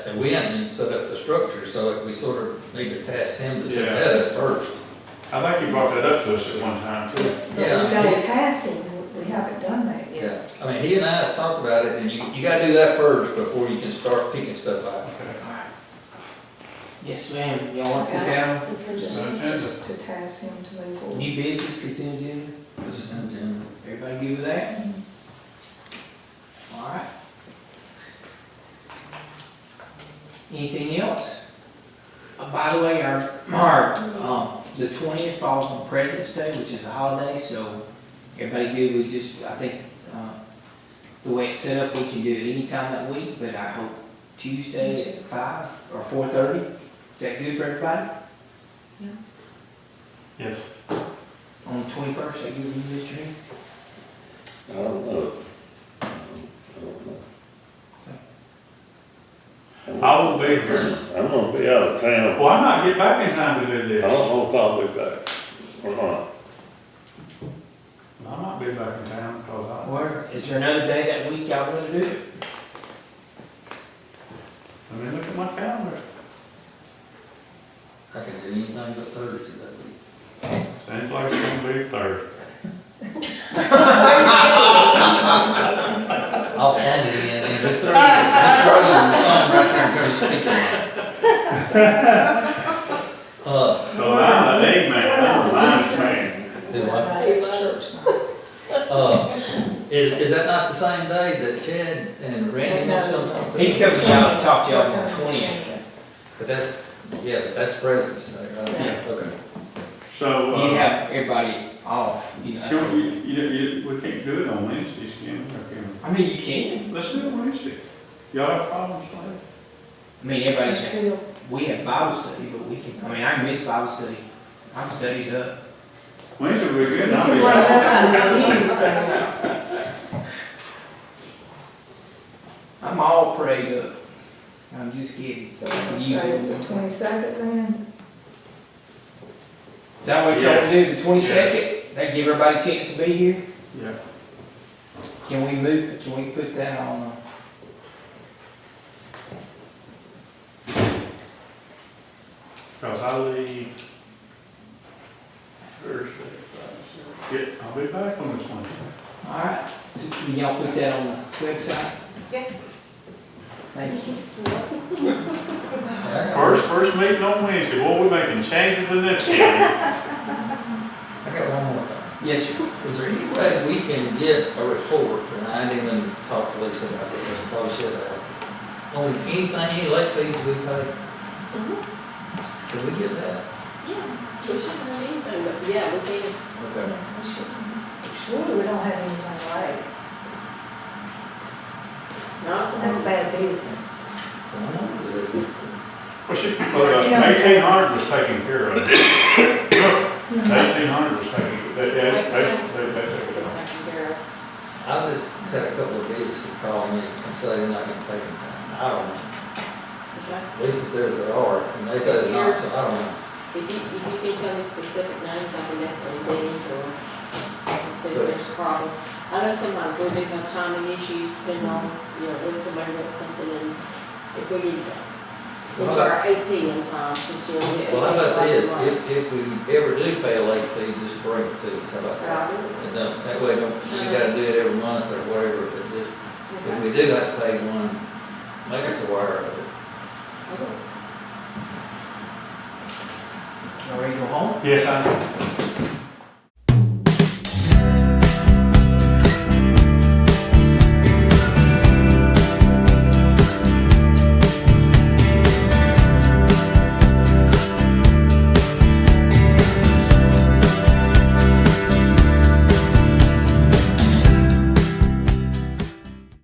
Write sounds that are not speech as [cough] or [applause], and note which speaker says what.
Speaker 1: And we haven't even set up the structure, so we sort of need to task him to set
Speaker 2: Yeah.
Speaker 1: that up first.
Speaker 2: I think you brought that up to us at one time too.
Speaker 3: But we
Speaker 1: Yeah.
Speaker 3: got a task and we haven't done that yet.
Speaker 1: Yeah, I mean, he and I has talked about it, and you, you gotta do that first before you can start picking stuff out.
Speaker 4: Yes, ma'am, y'all want to put down
Speaker 3: It's a-
Speaker 2: It's on agenda.
Speaker 3: To task him to move forward.
Speaker 4: new business consent agenda?
Speaker 1: Just in general.
Speaker 4: Everybody good with that? All right. Anything else? Uh, By the way, our, our, um, the twentieth falls on President's Day, which is a holiday, so everybody good, we just, I think, uh, the way it's set up, we can do it any time that week, but I hope Tuesday at five or four thirty. Is that good for everybody?
Speaker 2: Yes.
Speaker 4: On the twenty-first, is that good with you, Mr. Henry?
Speaker 5: I don't know. I don't know.
Speaker 2: I will be here.
Speaker 5: I'm gonna be out of town.
Speaker 2: Well, I might get back in time to do
Speaker 5: I
Speaker 4: Oh.
Speaker 2: this.
Speaker 5: don't know if I'll be back or not.
Speaker 2: I might be back in town because
Speaker 4: Or is there another day that week y'all wanna do it?
Speaker 2: I, I mean, look at my calendar.
Speaker 1: I can do anything but Thursday that week.
Speaker 2: Seems like it's gonna be Thursday.
Speaker 1: I'll plan it in, and if it's Thursday, Mr. Rowland will come right here and turn the speaker on. [laughs] Uh,
Speaker 2: So I'm the lead man, I'm the last man.
Speaker 1: do what?
Speaker 3: Right, it's church night.
Speaker 1: Uh, is, is that not the same day that Chad and Randy wants to come talk?
Speaker 4: He's coming down to talk to y'all on the twentieth.
Speaker 1: But that's, yeah, but that's President's Day, right?
Speaker 4: Yeah.
Speaker 1: Okay.
Speaker 2: So,
Speaker 4: You
Speaker 2: uh,
Speaker 4: have everybody off, you
Speaker 2: can we,
Speaker 4: know.
Speaker 2: you, you, we can't do it on Wednesdays, can we? Or can
Speaker 4: I mean, you can.
Speaker 2: we? Let's do it Wednesday. Y'all have problems later?
Speaker 4: I mean, everybody's,
Speaker 3: Still,
Speaker 4: we have Bible study, but we can, I mean, I miss Bible study. I'm studied up.
Speaker 2: Wednesday will be
Speaker 3: You
Speaker 2: good, I'll
Speaker 3: can
Speaker 2: be
Speaker 3: run
Speaker 2: out.
Speaker 3: us some reviews, uh,
Speaker 4: I'm all prayed up. I'm just kidding.
Speaker 3: so I'm say the twenty-second then,
Speaker 4: Is that what y'all
Speaker 2: Yes.
Speaker 4: do, the twenty-second? That give everybody a chance to be here?
Speaker 2: Yeah,
Speaker 4: Can we move, can we put that on? uh,
Speaker 2: because I leave Thursday, Friday, Saturday. Yeah, I'll be back on this Wednesday.
Speaker 4: All right, so can y'all put that on the website?
Speaker 3: Yeah.
Speaker 4: Thank you.
Speaker 1: Yeah,
Speaker 2: First, first meeting on Wednesday, boy, we making changes in this county.
Speaker 1: I got one more.
Speaker 4: Yes, sir.
Speaker 1: Is there any way we can get a report, and I didn't even talk to Lisa about this, I probably should have, on anything, any late fees we pay? Can we get that?
Speaker 6: Yeah, we shouldn't have anything, but yeah, we can.
Speaker 1: Okay.
Speaker 3: we should- surely we don't have anything late,
Speaker 6: Not
Speaker 3: that's bad business.
Speaker 2: Well, she, uh, eighteen hundred was taken care of. Eighteen hundred was taken, they, they,
Speaker 6: Next
Speaker 2: they,
Speaker 6: time,
Speaker 2: they-
Speaker 6: it's-
Speaker 2: they took it
Speaker 6: it's
Speaker 2: off.
Speaker 6: not gonna bear up.
Speaker 1: I just had a couple of businesses call me and say they're not gonna pay me, I don't know.
Speaker 6: Okay.
Speaker 1: Lisa says they are, and they say they're not, so I don't know.
Speaker 6: If you, if you can tell me specific names, I can definitely dig or I'll see if
Speaker 1: Good.
Speaker 6: there's a problem. I know sometimes we do have timing issues depending on, you know, when somebody wants something and if we need that.
Speaker 1: Well,
Speaker 6: Which
Speaker 1: how
Speaker 6: are AP in time, since you know.
Speaker 1: Well, how about this, if, if we ever do pay a late fee, just bring it to us, how about that? And then, that way, don't, you gotta do it every month or whatever, but just If we do have to pay one, make us aware of it.
Speaker 4: Y'all ready to go home?
Speaker 2: Yes, I,